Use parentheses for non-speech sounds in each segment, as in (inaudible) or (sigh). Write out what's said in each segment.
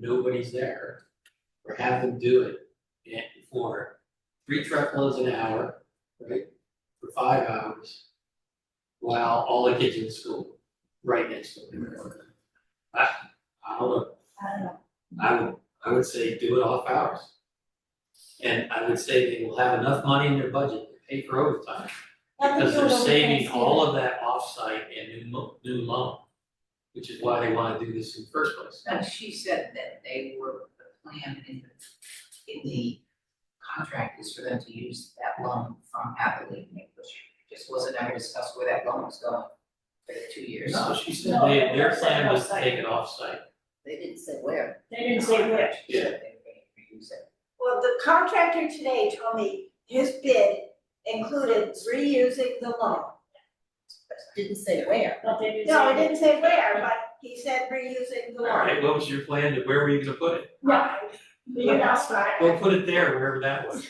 nobody's there. Or have them do it in for three truckloads an hour, right, for five hours. While all the kids in school, right next to them. I, I don't know, I don't know. I would, I would say do it off hours. And I would say they will have enough money in their budget to pay for overtime, Let them because do it they're over saving all Thanksgiving. of that offsite and new mo- new loan. Which is why they wanna do this in the first place. No, Uh, she said that they were, the plan in the, in the contract is for them to use that loan from Happily English. Just wasn't ever discussed where that loan was going for the two years. No, she said No, they, they their said plan was to offsite. take it offsite. They didn't say where. They didn't say which. She said they were gonna reuse it. Well, the contractor today told me his bid included reusing the loan. Didn't say where. But they didn't No, say- he didn't say where, but he said reusing the loan. Alright, what was your plan, to where were you gonna put it? No, you know, smart. Well, put it there, wherever that was.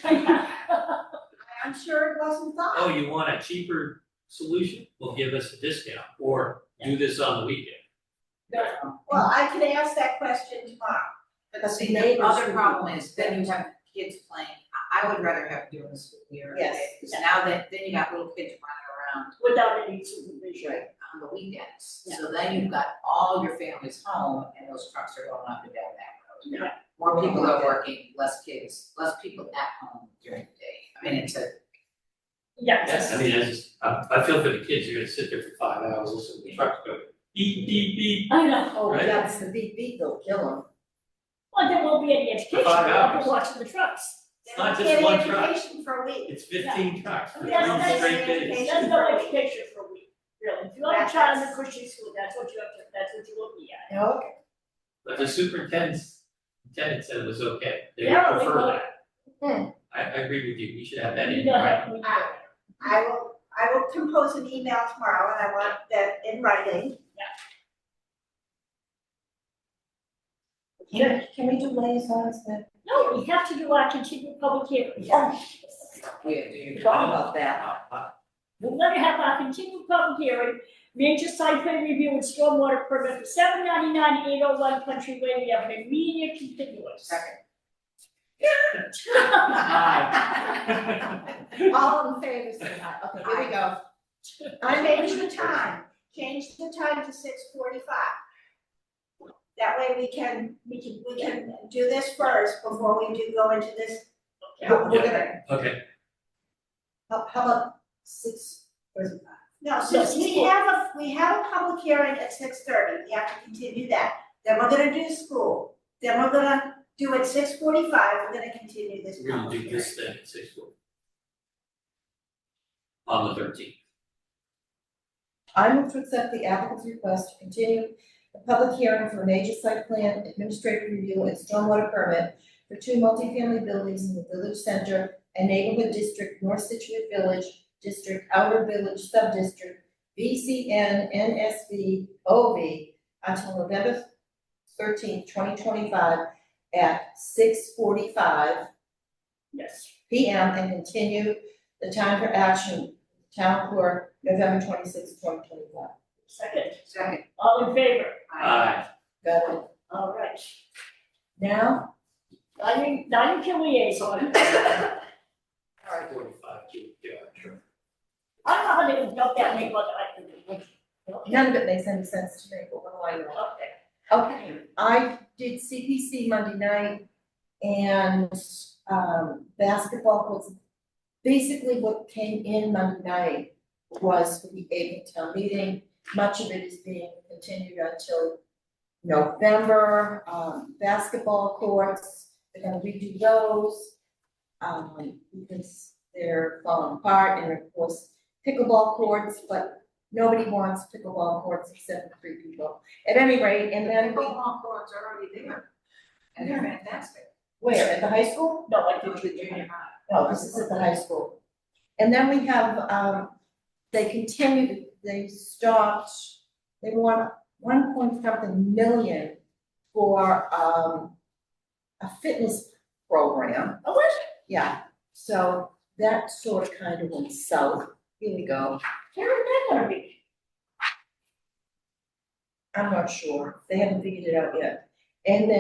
I'm sure it wasn't thought. Oh, you want a cheaper solution? Well, give us a discount, or do this on the weekend. Well, I could ask that question tomorrow. But the see, the other problem is then you have kids playing, I, I would rather have during the school year. Yes. Because now that, then you got little kids running around (laughs) Without any supervision. right, on the weekends. So then you've got all your families home and those trucks are going up and down that road. Yeah. More people are working, less kids, less people at home during the day. I mean, it's a, Yes, I Yes. mean, I just, I, I feel for the kids, you're gonna sit there for five hours, listening to the trucks go beep, beep, beep. I know. Oh, Right. that's the beep beep, they'll kill them. Well, there won't be any education, Five I'll hours. be watching the trucks. They It's not don't just get one truck. education for a week. It's fifteen trucks, Yeah, for three that's- straight days. Education There's no for a week. education for a week, really. If you want a child in a Christian school, that's what you have to, that's what you will be at. No, But the superintendent, superintendent said it was okay, they Yeah, they prefer will. that. I, I agree with you, we should have that You in, know right? how we do Right. it. I will, I will compose an email tomorrow and I want that in writing. can, can we do liaisons then? No, we have to do our continued public hearing. Yeah. we Oh, do your. Thought about that. (laughs) We're gonna have our continued public hearing, major site plan review and stormwater permit for seven ninety-nine, eight oh one Country Way, we have an immediate continuance. Second. (laughs) All in favor, say aye, okay, here we go. I Change the time, change the time to six forty-five. That way we can, we can, we can do this first before we do go into this. We're gonna, (laughs) Okay, how, how about six, where's it? No, No, so we 6:40. have a, we have a public hearing at six thirty, we have to continue that, then we're gonna do school. Then we're gonna do at six forty-five, we're gonna continue this we're gonna public do hearing. this thing at six forty. On the thirteenth, I move to accept the applicant's request to continue the public hearing for a major site plan administrative review and stormwater permit for two multifamily buildings in the village center and neighborhood district, North Situate Village District, Outer Village Subdistrict, VCN, NSV, OV, until November thirteenth, twenty twenty-five at six forty-five Yes. P M and continue the time for action, town clerk, November twenty-sixth, twenty twenty-five. Second, Second. all in favor? aye, Got it. All right. Now, Now you, now you can (laughs) liaison. forty-five, you, you are sure. I don't know how they would dump that name, but I can. none of it makes any sense to me, but what do I know? Okay. Okay, I did CPC Monday night and, um, basketball was, basically what came in Monday night was for the April town meeting. Much of it is being continued until November, um, basketball courts, they're gonna redo those. Um, because they're falling apart and of course pickleball courts, but nobody wants pickleball courts except for three people. At any rate, and then we Pickleball courts are already there, and they're fantastic. Where, at the high school? No, I Those think are we do. junior high. No, this is at the high school. And then we have, um, they continued, they stopped, they want one point something million for, um, a fitness program. Oh, what? Yeah, so that sort of kind of went south. Here we go. Where is that gonna be? I'm not sure. They haven't figured it out yet. And then